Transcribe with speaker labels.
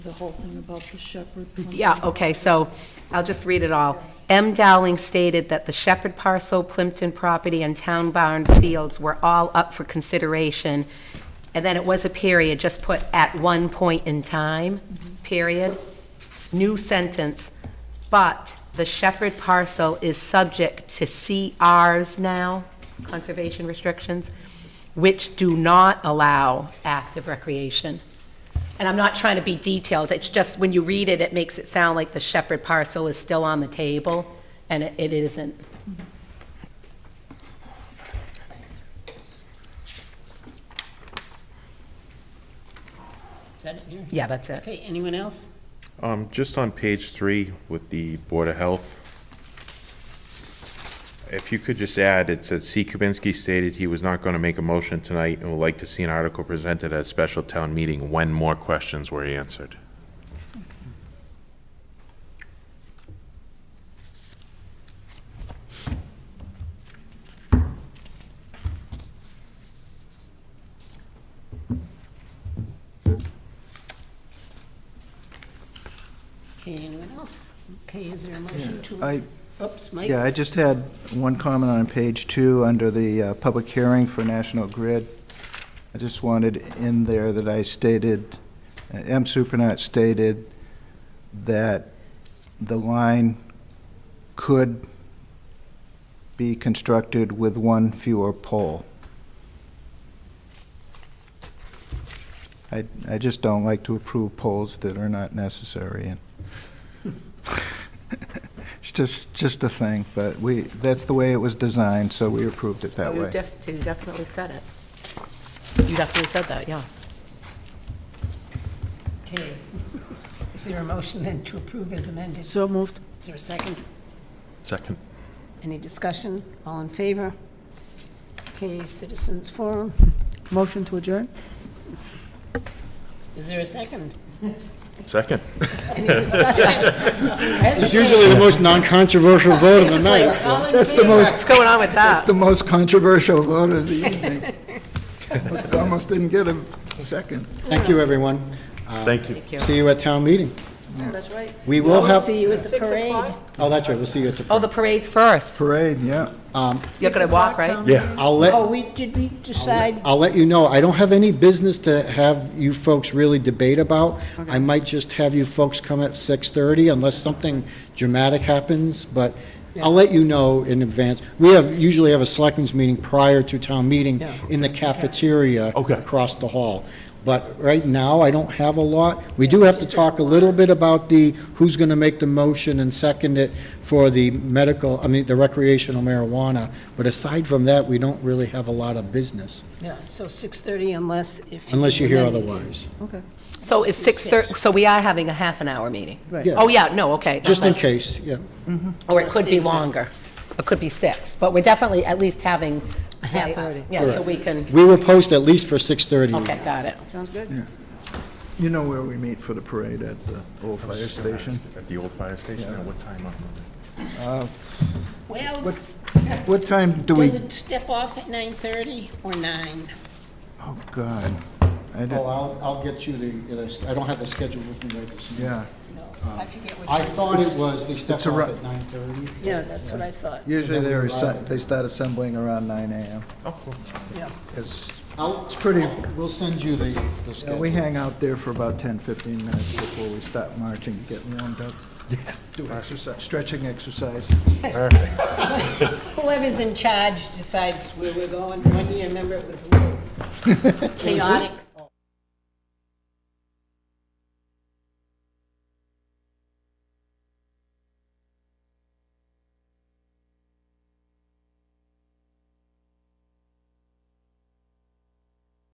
Speaker 1: The whole thing about the Shepherd.
Speaker 2: Yeah, okay, so I'll just read it all. M. Dowling stated that the Shepherd parcel, Plimpton property, and Town Barn Fields were all up for consideration, and then it was a period, just put at one point in time, period. New sentence, but the Shepherd parcel is subject to CRs now, conservation restrictions, which do not allow active recreation. And I'm not trying to be detailed, it's just when you read it, it makes it sound like the Shepherd parcel is still on the table, and it it isn't.
Speaker 3: Is that it here?
Speaker 2: Yeah, that's it.
Speaker 3: Okay, anyone else?
Speaker 4: Um, just on page three with the Board of Health, if you could just add, it says, "C. Kibinski stated he was not going to make a motion tonight and would like to see an article presented at a special town meeting when more questions were answered."
Speaker 3: Okay, anyone else? Okay, is there a motion to?
Speaker 5: I,
Speaker 3: Oops, Mike?
Speaker 5: yeah, I just had one comment on page two, under the uh, public hearing for National Grid. I just wanted in there that I stated, uh, M. Supranat stated that the line could be constructed with one fewer pole. I, I just don't like to approve poles that are not necessary, and it's just, just a thing, but we, that's the way it was designed, so we approved it that
Speaker 2: You
Speaker 5: way.
Speaker 2: def- you definitely said it. You definitely said that, yeah.
Speaker 3: Okay. Is there a motion then to approve as amended?
Speaker 1: So moved.
Speaker 3: Is there a second?
Speaker 4: Second.
Speaker 3: Any discussion? All in favor? Okay, citizens forum.
Speaker 1: Motion to adjourn?
Speaker 3: Is there a second?
Speaker 4: Second.
Speaker 3: Any discussion?
Speaker 6: It's usually the most non-controversial vote of the night.
Speaker 3: That's
Speaker 2: What's going on with that?
Speaker 5: the most controversial vote of the evening. Almost- Almost didn't get a second.
Speaker 6: Thank you, everyone.
Speaker 4: Thank you.
Speaker 6: See you at town meeting.
Speaker 1: That's right.
Speaker 6: We will have,
Speaker 3: See you at the parade.
Speaker 6: oh, that's right, we'll see you at
Speaker 2: Oh,
Speaker 6: the,
Speaker 2: the parade's first.
Speaker 5: Parade, yeah.
Speaker 2: You're going to walk, right?
Speaker 4: Yeah.
Speaker 6: I'll
Speaker 3: Oh,
Speaker 6: let,
Speaker 3: we, did we decide?
Speaker 6: I'll let you know, I don't have any business to have you folks really debate about. I might just have you folks come at 6:30 unless something dramatic happens, but I'll let you know in advance. We have, usually have a selectmen's meeting prior to town meeting
Speaker 3: Yeah.
Speaker 6: in the cafeteria
Speaker 4: Okay.
Speaker 6: across the hall. But right now, I don't have a lot. We do have to talk a little bit about the, who's going to make the motion and second it for the medical, I mean, the recreational marijuana. But aside from that, we don't really have a lot of business,
Speaker 3: Yeah, so 6:30 unless if.
Speaker 6: unless you hear
Speaker 3: amend it.
Speaker 6: otherwise.
Speaker 1: Okay.
Speaker 2: So it's 6:30, so we are having a half an hour meeting?
Speaker 1: Right.
Speaker 6: Yeah.
Speaker 2: Oh, yeah, no, okay.
Speaker 6: Just in
Speaker 2: Unless-
Speaker 6: case, yeah.
Speaker 2: Or it could be longer. It could be six, but we're definitely at least having. A
Speaker 3: half hour.
Speaker 2: Yeah, so we can,
Speaker 6: We will post at least for 6:30.
Speaker 2: okay, got it.
Speaker 1: Sounds good.
Speaker 5: You know where we meet for the parade, at the old fire station?
Speaker 4: At the old fire station, at what time on Monday?
Speaker 3: Well,
Speaker 5: What, what time do we,
Speaker 3: does it step off at 9:30 or 9?
Speaker 5: oh, God. I
Speaker 6: Oh,
Speaker 5: didn't,
Speaker 6: I'll, I'll get you the- the, I don't have the schedule with me right this minute.
Speaker 5: yeah.
Speaker 3: No, I forget what.
Speaker 6: I
Speaker 3: time it
Speaker 6: thought it was, they step
Speaker 5: It's a
Speaker 6: off
Speaker 5: ru-
Speaker 6: at 9:30.
Speaker 3: is. Yeah, that's what I thought.
Speaker 5: Usually they're, assi- they start assembling around nine AM.
Speaker 3: Yeah.
Speaker 5: Because
Speaker 6: I'll-
Speaker 5: It's pretty-
Speaker 6: We'll send you the, the schedule.
Speaker 5: we hang out there for about 10, 15 minutes before we start marching, get warmed up, do exercise, stretching exercises.
Speaker 3: Whoever's in charge decides where we're going. One year, remember, it was a little chaotic